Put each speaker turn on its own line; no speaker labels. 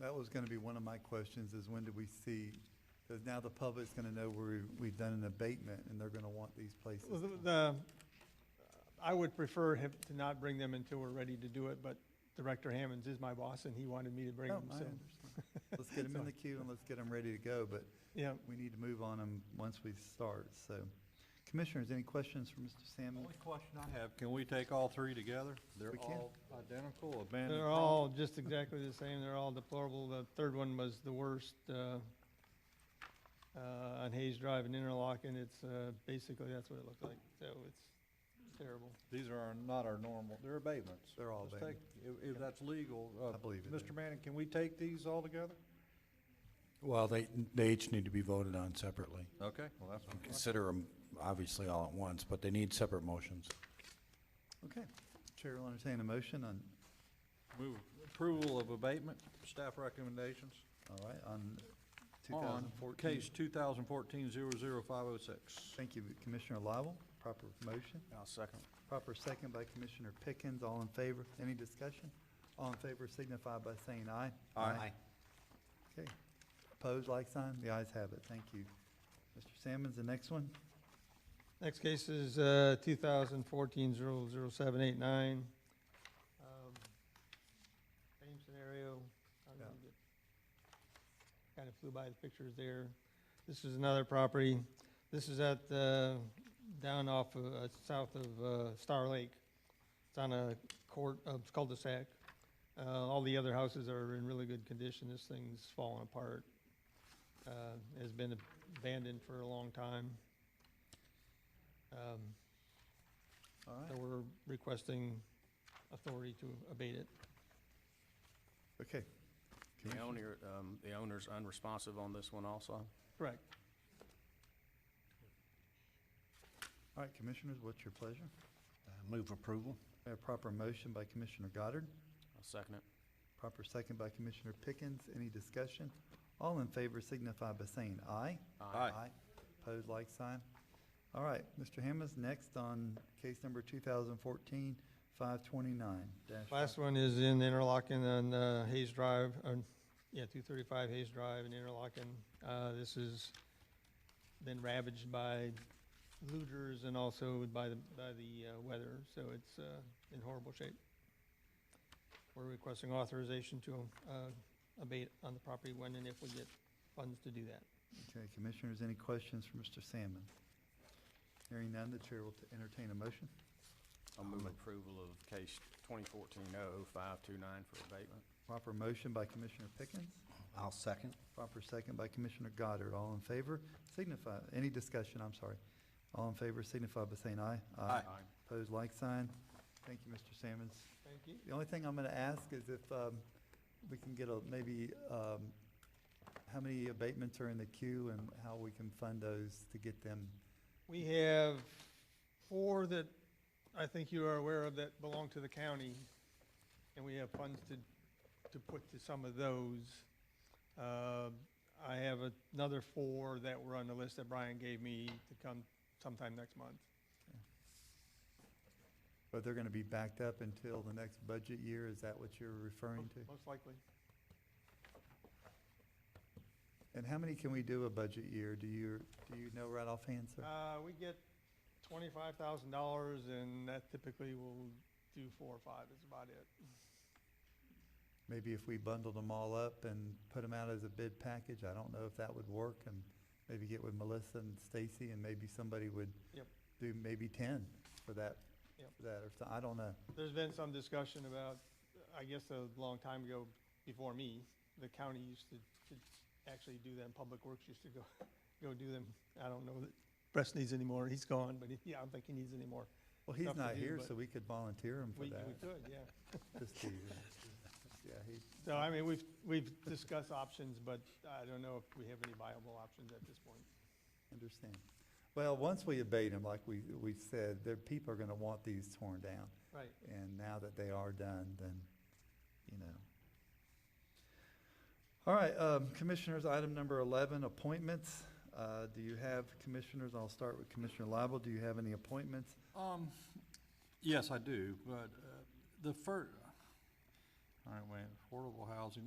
That was gonna be one of my questions, is when do we see, because now the public's gonna know where we've done an abatement, and they're gonna want these places.
Well, The, the- I would prefer him to not bring them until we're ready to do it, but Director Hammonds is my boss and he wanted me to bring
No,
them,
Oh, I
so.
understand. Let's get them in the queue and let's get them ready to go, but
Yeah,
we need to move on them once we start, so. Commissioners, any questions for Mr. Salmon?
Only question I have, can we take all three together? They're
We can.
all identical, abandoned.
they're all just exactly the same. They're all deplorable. The third one was the worst, uh, uh, on Hayes Drive in Interlochen. It's, uh, basically, that's what it looked like. So it's terrible.
These are not our normal, they're abatements.
They're all
Let's
abatement.
take- If, if that's legal, uh,
I believe it is.
Mr. Manning, can we take these all together?
Well, they, they each need to be voted on separately.
Okay, well, that's. my question.
Consider them obviously all at once, but they need separate motions.
Okay, Chair will entertain a motion on,
Move approval of abatement, staff recommendations
all right, on two
on
thousand fourteen.
case 2014-00506.
Thank you, Commissioner Lible, proper motion.
I'll second.
Proper second by Commissioner Pickens, all in favor, any discussion? All in favor signify by saying aye. Okay, opposed, like sign, the ayes have it, thank you. Mr. Sammons, the next one,
Next case is uh, 2014-00789. Um, Same scenario. Kind of flew by the pictures there. This is another property. This is at, uh, down off, of, uh, south of uh, Star Lake. It's on a court, uh, it's cul-de-sac. Uh, All the other houses are in really good condition. This thing's falling apart. Uh, Has been abandoned for a long time. Um,
all
So
right,
we're requesting authority to abate it.
okay.
The
Commissioner-
owner, um, the owner's unresponsive on this one also?
Correct.
All right, Commissioners, what's your pleasure?
Uh, Move approval.
We have proper motion by Commissioner Goddard,
I'll second it.
proper second by Commissioner Pickens, any discussion? All in favor signify by saying aye.
Aye.
Opposed, like sign. All right, Mr. Hammond's next on case number 2014-529. dash
Last one is in Interlochen on uh, Hayes Drive, on- yeah, 235 Hayes Drive in Interlochen. Uh, This has been ravaged by looters and also by the, by the uh, weather, so it's uh, in horrible shape. We're requesting authorization to uh, abate on the property when and if we get funds to do that.
Okay, Commissioners, any questions for Mr. Salmon? Hearing none, the chair will t- entertain a motion.
I'll move approval of case twenty fourteen oh oh five two nine for abatement.
Proper motion by Commissioner Pickens,
I'll second.
proper second by Commissioner Goddard. All in favor signify, any discussion, I'm sorry. All in favor signify by saying aye. Opposed, like sign. Thank you, Mr. Salmons.
Thank you.
The only thing I'm gonna ask is if, um, we can get a, maybe, um, how many abatements are in the queue and how we can fund those to get them.
We have four that I think you are aware of that belong to the county, and we have funds to, to put to some of those. Uh, I have another four that were on the list that Brian gave me to come sometime next month.
But they're gonna be backed up until the next budget year, is that what you're referring to?
Most likely.
And how many can we do a budget year? Do you, do you know right offhand, sir?
Uh, we get twenty-five thousand dollars, and that typically will do four or five, is about it.
Maybe if we bundled them all up and put them out as a bid package, I don't know if that would work, and maybe get with Melissa and Stacy, and maybe somebody would
Yep.
do maybe ten for that,
Yep.
for that, or, so- I don't know.
There's been some discussion about, I guess a long time ago, before me, the county used to, to actually do them, Public Works used to go, go do them. I don't know that Press needs anymore, he's gone, but he- yeah, I don't think he needs anymore.
Well, he's
Stuff to
not
do,
here,
but-
so we could volunteer him for
We, we
that.
could, yeah.
Just to- Yeah, he,
So, I mean, we've, we've discussed options, but I don't know if we have any viable options at this point.
understand. Well, once we abate them, like we, we said, there, people are gonna want these torn down.
Right.
And now that they are done, then, you know. All right, um, Commissioners, item number eleven, appointments. Uh, do you have commissioners? I'll start with Commissioner Lible. Do you have any appointments?
Um, yes, I do, but, uh, the fir-, all right, wait, affordable housing,